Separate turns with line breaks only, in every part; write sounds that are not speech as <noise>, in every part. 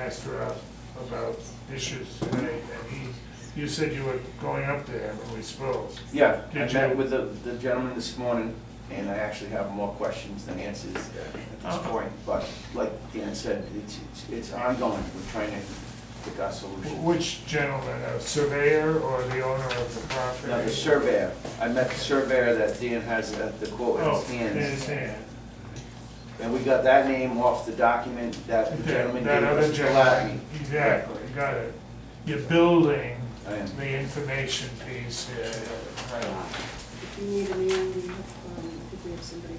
asked her out about issues today, and he, you said you were going up there when we spoke.
Yeah, I
Did you-
met with the the gentleman this morning, and I actually have more questions than answers at this
Uh-huh.
point. But like Dan said, it's, it's- it's ongoing, we're trying to pick our
Wh-
solution.
Which gentleman, a surveyor or the owner of the property?
Now, the surveyor, I met the surveyor that Dan has at the quote in
Oh,
his
in his
hands.
hand.
And we got that name off the document that the gentleman gave
That other
us, Galati.
gentleman, exactly, got it. You're building
I am.
the information piece here.
If you need a man, we have, um, if we have somebody,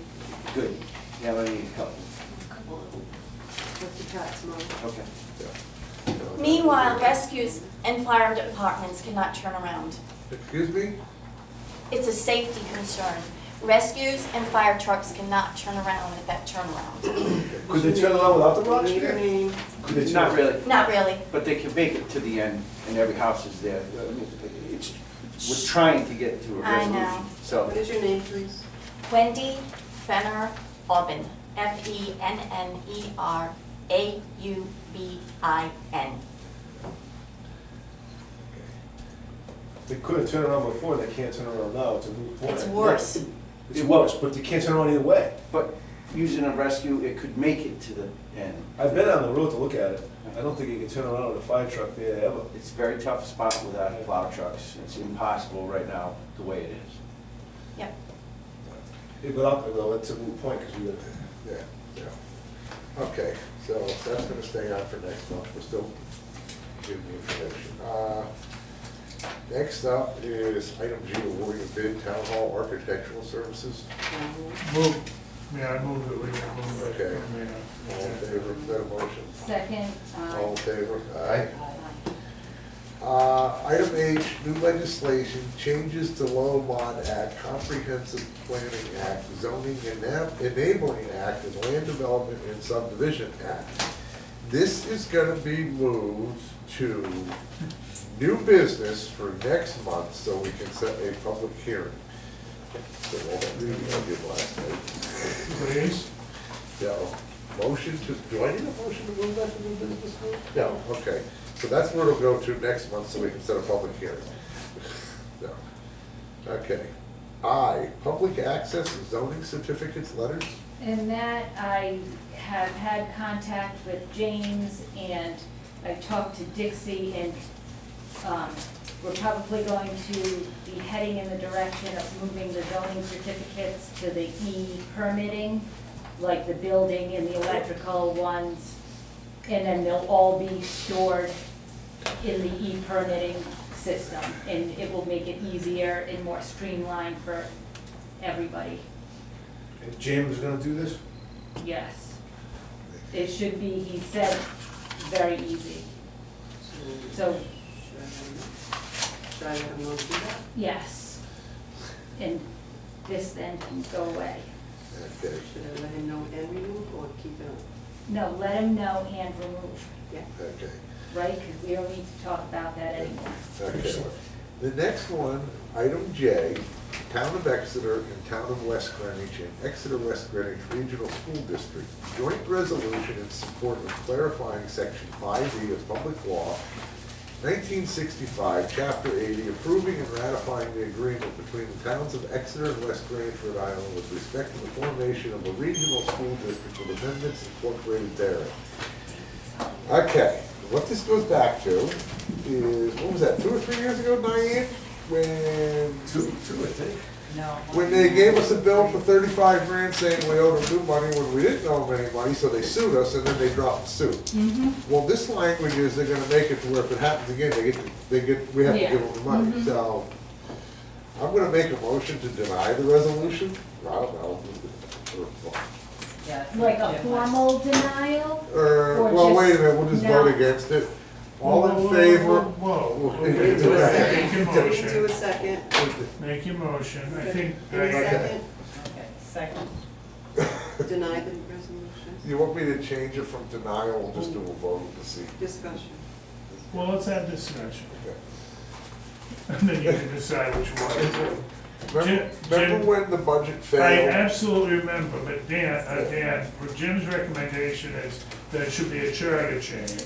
Good, yeah, I need a couple,
a couple of them, like the tax model.
okay.
Meanwhile, rescues and fire departments cannot turn around.
Excuse me?
It's a safety concern. Rescues and fire trucks cannot turn around at that turnaround.
Could they turn around without the rocks?
Need a name,
Could they turn-
Not really,
Not really.
but they can make it to the end, and every house is there. I mean, It's, we're trying to get to a
I know.
resolution, so.
what is your name, please?
Wendy Fenner Aubin, E F-E-N-N-E-R-A-U-B-I-N.
They could have turned around before, they can't turn around now, it's a moot point.
It's worse.
It's worse, but they can't turn around either way.
But using a rescue, it could make it to the end.
I've been on the road to look at it, I don't think you can turn around with a fire truck there ever.
It's a very tough spot without plow trucks. It's impossible right now, the way it is.
Yep.
It went up, though, it's a moot point, because we, got-
Yeah, yeah. Okay, so that's gonna stay on for next month, we're still giving the information. Uh, Next up is item G, awarding bid, town hall architectural services.
Move, yeah, I move that we remove it.
Okay.
from there.
All in favor of that motion?
Second,
All in
aye.
favor? Aye. Uh, Item H, new legislation, changes to Lomond Act, Comprehensive Planning Act, Zoning Ena- Enabling Act, and Land Development and Subdivision Act. This is gonna be moved to new business for next month, so we can set a public hearing. So we'll do what I did last night.
Please?
No. Motion to, do I need a motion to move that to new business? No, okay. So that's where it'll go to next month, so we can set a public hearing. No. Okay. I, public access and zoning certificates letters.
And that, I have had contact with James, and I talked to Dixie, and um, we're probably going to be heading in the direction of moving the zoning certificates to the E permitting, like the building and the electrical ones, and then they'll all be stored in the E permitting system, and it will make it easier and more streamlined for everybody.
if James is gonna do this,
Yes. It should be, he said, very easy. So,
Should I let him know to do that?
yes. And this then can go away.
Okay.
Should I let him know and remove or keep it on?
No, let him know and remove,
Yeah.
Okay.
right? Because we don't need to talk about that anymore.
Okay. The next one, item J, Town of Exeter and Town of West Greenwich and Exeter West Greenwich Regional School District, joint resolution in support of clarifying section five D of public law, nineteen sixty-five, chapter eighty, approving and ratifying the agreement between the towns of Exeter and West Greenwich, Rhode Island with respect to the formation of a regional school district with amendments incorporated therein. Okay, what this goes back to is, what was that, two or three years ago, Diane? When,
two, two, I think.
when they gave us a bill for thirty-five grand saying we owed them new money when we didn't owe them any money, so they sued us and then they dropped the suit.
Mm-hmm.
Well, this language is they're gonna make it to where if it happens again, they get, they get, we have to
Yeah.
give them the money,
Mhm.
so. I'm gonna make a motion to deny the resolution, I don't know.
Like a formal denial?
Or,
Or
well, wait a
just
minute, we'll just vote
not.
against it. All in
Whoa,
favor?
Whoa, whoa, whoa.
We need
Make
to do a
second.
your
We need to do a
motion,
second.
make your motion, I think.
Any
I-
second?
Okay, second.
Deny the resolution.
You want me to change it from denial or just do a vote to see?
Discussion.
Well, let's have discussion, <laughs>
Okay.
and then you can decide which one.
Remember,
Jim-
remember
Jim-
when the budget
I
failed?
absolutely remember, but Dan, uh, Dan, Jim's recommendation is that it should be a charter change.